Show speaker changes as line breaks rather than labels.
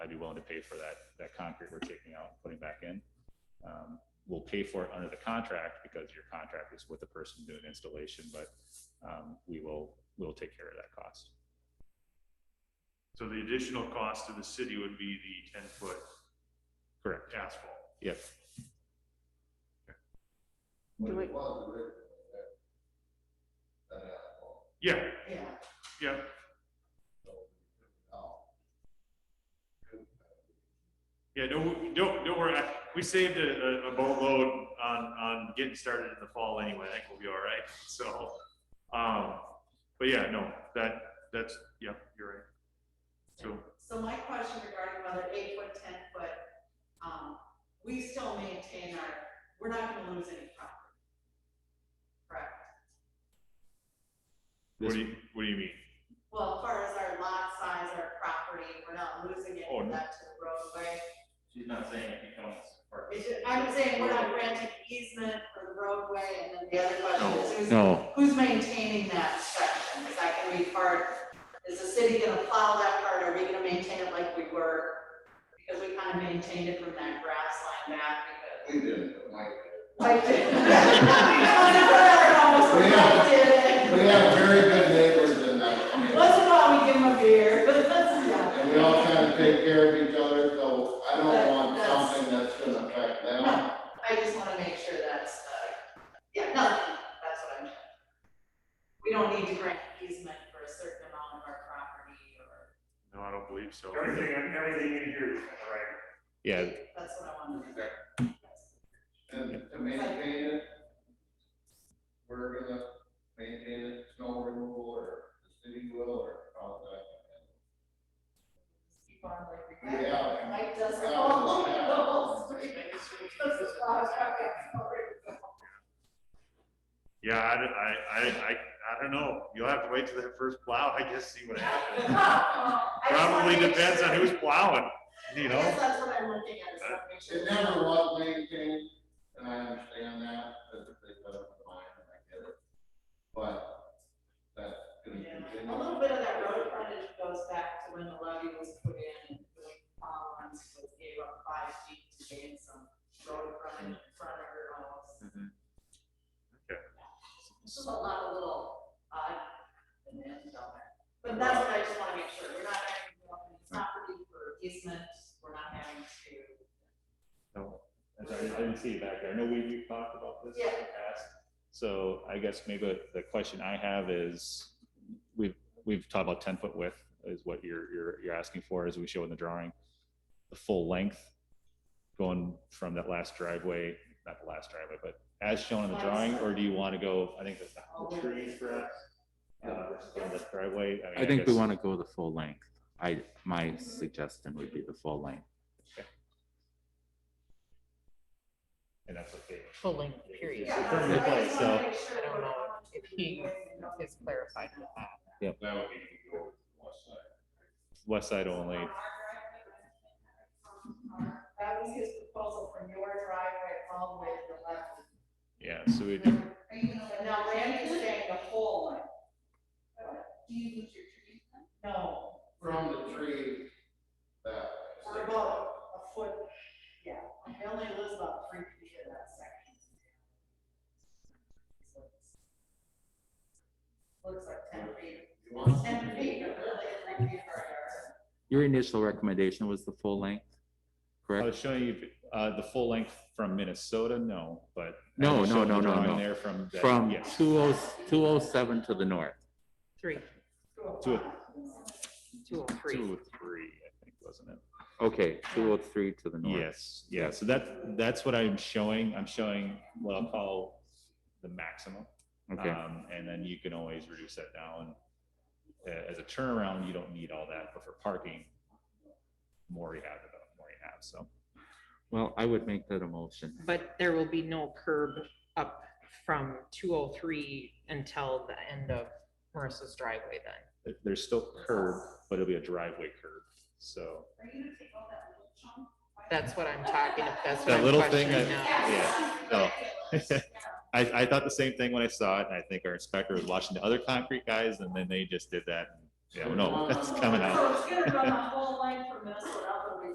to pay for that, that concrete we're taking out, and putting back in. Um, We'll pay for it under the contract because your contract is with the person doing installation, but um, we will, we'll take care of that cost.
So the additional cost to the city would be the ten foot
Correct.
asphalt.
Yep.
Do we-
Yeah,
Yeah.
yeah,
oh.
yeah, don't, don't, don't worry, I- we saved a, a- a boatload on, on getting started in the fall anyway, I think we'll be all right, so. Um, but yeah, no, that, that's, yeah, you're right. So,
So my question regarding whether eight foot, ten foot, um, we still maintain our, we're not gonna lose any property. Correct?
what do you, what do you mean?
Well, as far as our lot size, our property, we're not losing any
Oh,
of
no.
that to the roadway.
She's not saying it becomes part of
It's ju- I'm saying we're not granting easement for the roadway, and then the other question is who's
No,
Who's maintaining that section? Is that gonna be part, is the city gonna plow that part? Are we gonna maintain it like we were? Because we kind of maintained it from that grass line back because.
We did, Mike.
Like it. Almost like it.
We have very good neighbors in that community,
Once in a while, we give them a beer, but that's, yeah.
and we all kind of take care of each other, so I don't
But
want
that's-
something that's gonna affect them.
No, I just wanna make sure that's, uh, yeah, no, that's what I'm trying. We don't need to grant easement for a certain amount of our property or,
No, I don't believe so.
Everything, everything in here is kind of right.
yeah,
that's what I wanted to.
And to maintain it, we're gonna maintain it, snow removal, or the city will, or all that.
Keep on like.
We have-
Mike does
Yeah.
all the whole street. That's the last time I saw it.
Yeah, I, don't- I, I, I, I don't know, you'll have to wait till that first plow, I guess, see what happens.
I just wanna
Probably
make
depends on
sure.
who's plowing, you
I
know?
guess that's what I'm looking at, is that picture.
It never was maintained, and I understand that, that they put up the mine, and I get it. But that's gonna
Yeah. A
continue.
little bit of that road frontage goes back to when the levee was put in, and the ponds was gave up five feet to gain some road frontage in front of her house.
Mm-hmm.
Mhm. Okay.
This is a lot of little odd and ends down there, but that's what I just wanna make sure, we're not having, to go up in property for easement, we're not having to.
No, I'm sorry, I didn't see it back there. I know we, we talked about this in the
Yeah.
past. So I guess maybe the question I have is, we've, we've talked about ten foot width is what you're, you're, you're asking for as we show in the drawing. The full length going from that last driveway, not the last driveway, but as shown in the drawing, or do you want to go, I think that's the
all
apple
the way
trees for us? uh, versus the Driveway. mean,
I think we
guess-
want to go the full length. I, my suggestion would be the full length.
And that's what they.
full length period.
Yeah,
It's in
I
place,
just wanna
so-
make sure
I don't
we're
know
not-
if he is clarified with that.
That would be your west side.
West side only.
That was his proposal from your driveway all the way to the left.
Yeah, so we, do
But now Randy is saying the whole length. Do you lose your tree? No,
From the tree that.
we're about a foot, yeah, I only lose about three feet of that section. So it's- Looks like ten feet,
You want-
ten feet, but really three feet per yard.
Your initial recommendation was the full length,
I
correct?
was showing you uh, the full length from Minnesota, no, but. I
No,
was
no,
showing the
no, no,
drawing
no.
There from. that-
From oh,
yes.
20 207 to the north.
Three,
Two,
two oh three.
two, three, I think, wasn't it?
Okay, two oh three to the north.
Yes, yeah, so that, that's what I'm showing, I'm showing what I'll call the maximum.
Okay,
Um, And then you can always reduce that down. A- As a turnaround, you don't need all that, but for parking, more you have, the more you have, so.
well, I would make that a motion.
But there will be no curb up from two oh three until the end of Marissa's driveway then.
There- There's still curb, but it'll be a driveway curb, so.
Are you gonna take all that little chunk?
That's what I'm talking, that's what
That
I'm
little thing
questioning
that-
now.
yeah, Oh. no. I, I thought the same thing when I saw it, and I think our inspector was watching the other concrete guys, and then they just did that. Yeah, well, no, that's coming out.
So it's gonna run the whole length from Minnesota all the